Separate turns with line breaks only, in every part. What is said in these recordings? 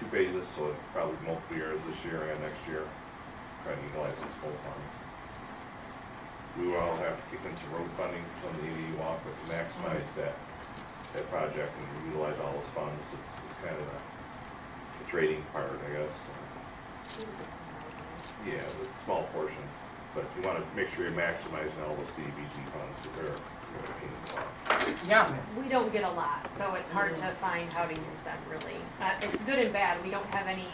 two phases, so it probably multiple years this year and next year, trying to utilize those full funds. We will all have to kick in some road funding from the ADU walk, but to maximize that, that project and utilize all those funds, it's, it's kind of a the trading part, I guess. Yeah, the small portion, but you wanna make sure you're maximizing all those CDBG funds that are, that are being blocked.
Yeah,
We don't get a lot, so it's hard to find how to use them really. Uh, it's good and bad. We don't have any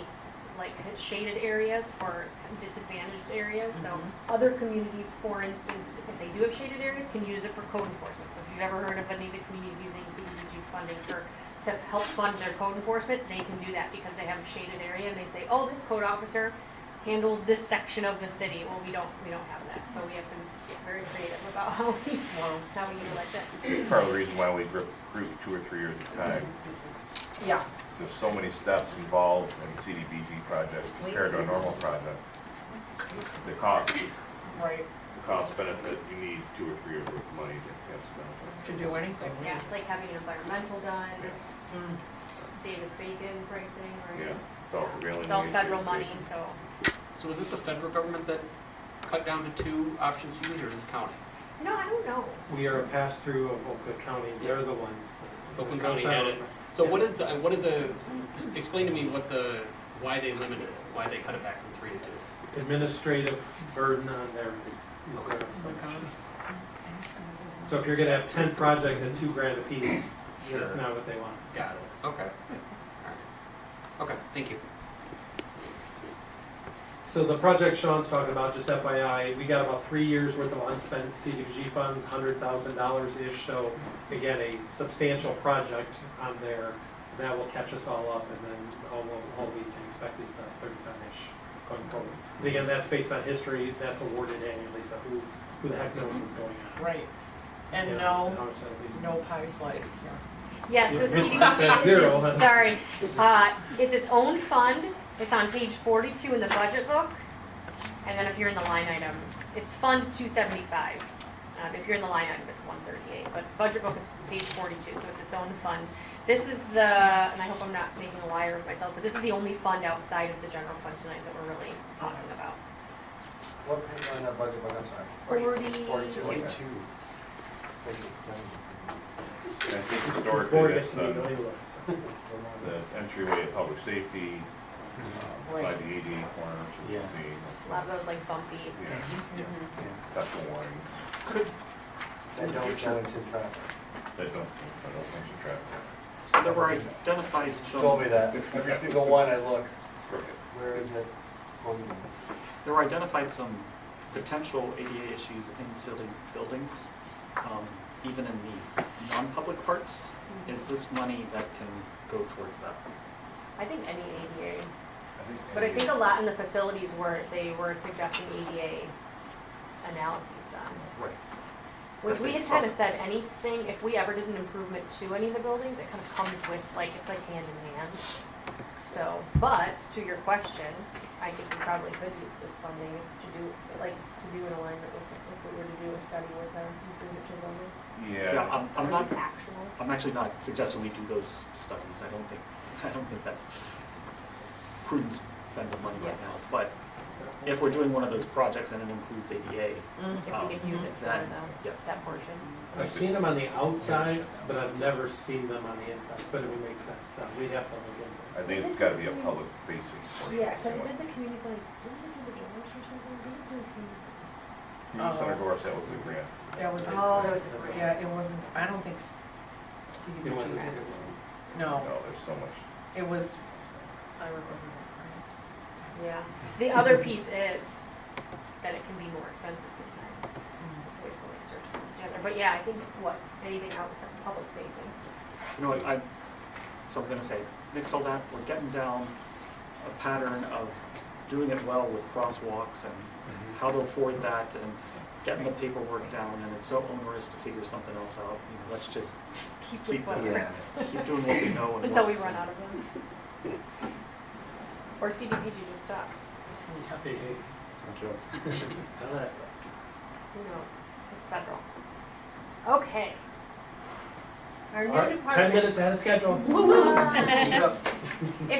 like shaded areas for disadvantaged areas. So other communities, for instance, if they do have shaded areas, can use it for code enforcement. So if you've ever heard of any of the communities using CDBG funding for, to help fund their code enforcement, they can do that because they have a shaded area and they say, oh, this code officer handles this section of the city. Well, we don't, we don't have that. So we have to get very creative about how we, how we utilize it.
Part of the reason why we group, group two or three years at a time,
yeah,
there's so many steps involved in CDBG projects compared to a normal project. The cost, the
right,
cost benefit, you need two or three years worth of money to have some
to do anything,
Yeah,
yeah.
like having an environmental done,
Mm,
Davis Bacon pricing,
benefit. Yeah,
or
it's all prevailing.
it's all
wage,
federal
it's-
money, so
So was this the federal government that cut down to two options to use, or is this county?
no, I don't know.
We are a pass-through of Oakland County, they're the ones. that-
So Oakland County had it. So what is, the- what are the, explain to me what the, why they limited it, why they cut it back from three to two?
Administrative burden on their, is their- so if you're gonna have ten projects at two grand apiece, that's
Sure.
not what they want.
Got it, okay. All right. Okay, thank you.
So the project Sean's talking about, just FYI, we got about three years worth of unspent CDBG funds, hundred thousand dollars-ish, so again, a substantial project on there that will catch us all up, and then all, all we can expect is about thirty-five-ish going forward. And Again, that's based on history, that's awarded annually, so who, who the heck knows what's going on?
Right, and
You know,
no,
how much that'll be.
no pie slice, yeah.
Yeah, so
Yeah, it's
CDBG.
not that zero, huh?
Sorry, uh, it's its own fund, it's on page forty-two in the budget book, and then if you're in the line item, it's Fund two seventy-five. Um, if you're in the line item, it's one thirty-eight, but budget book is page forty-two, so it's its own fund. This is the, and I hope I'm not making a liar of myself, but this is the only fund outside of the general fund tonight that we're really talking about.
What page on that budget book, I'm sorry?
Forty-two.
Forty-two. okay.
And I think
It's
historically,
boring
that's
to me, don't
the,
even look.
the entryway of public safety,
Mm-hmm.
uh, by
Right.
the ADA corners, which
Yeah.
would be.
A lot of those like bumpy.
Yeah,
Mhm.
that's the one
That don't go into traffic.
that don't, that don't function traffic.
So there were identified
She told
some,
me that, every single one I look,
Crooked.
where is it?
there were identified some potential ADA issues in city buildings, um, even in the non-public parts. Is this money that can go towards that?
I think any ADA, but I think a lot in the facilities were, they were suggesting ADA analyses done.
Right.
Which
That
we
they
had kind of
suck.
said, anything, if we ever did an improvement to any of the buildings, it kind of comes with, like, it's like hand in hand. So, but to your question, I think we probably could use this funding to do, like, to do an alignment with, if we were to do a study with them, improvement to building.
Yeah,
Yeah,
I'm, I'm not,
Actual.
I'm actually not suggesting we do those studies. I don't think, I don't think that's prudent spend of money right now. But if we're doing one of those projects and it includes ADA,
If we could use it for
Oh. That-
them, though,
yes.
that portion.
I've seen them on the outsides, but I've never seen them on the insides, but it would make sense, so we'd have to look into it.
I think it's gotta be a public facing portion.
Yeah, because
to
it
it.
did the community center, didn't it do the doors or something? Didn't it do community center?
Community Center Doris, that was the grant.
That was,
Oh, that was
great.
yeah, it wasn't, I don't think s-
It wasn't
CDBG,
good.
No,
no,
there's so much.
it was, I remember that.
Yeah. The other piece is that it can be more expensive sometimes.
Mm.
So we have to like search for each other. But yeah, I think what, anything outside public facing.
You know, I, so I'm gonna say, mix all that, we're getting down a pattern of doing it well with crosswalks and how to afford that and getting the paperwork down, and it's so onerous to figure something else out. You know, Let's just
Keep
keep,
with what
that-
Yeah.
keep doing what we know and
until we
works.
run out of them. Or CDPG just stops.
Hey, hey, Oh,
No joke.
none of that stuff.
You know, it's federal. Okay. Our
All
new
right,
department.
Ten minutes ahead of schedule.
Woo-hoo.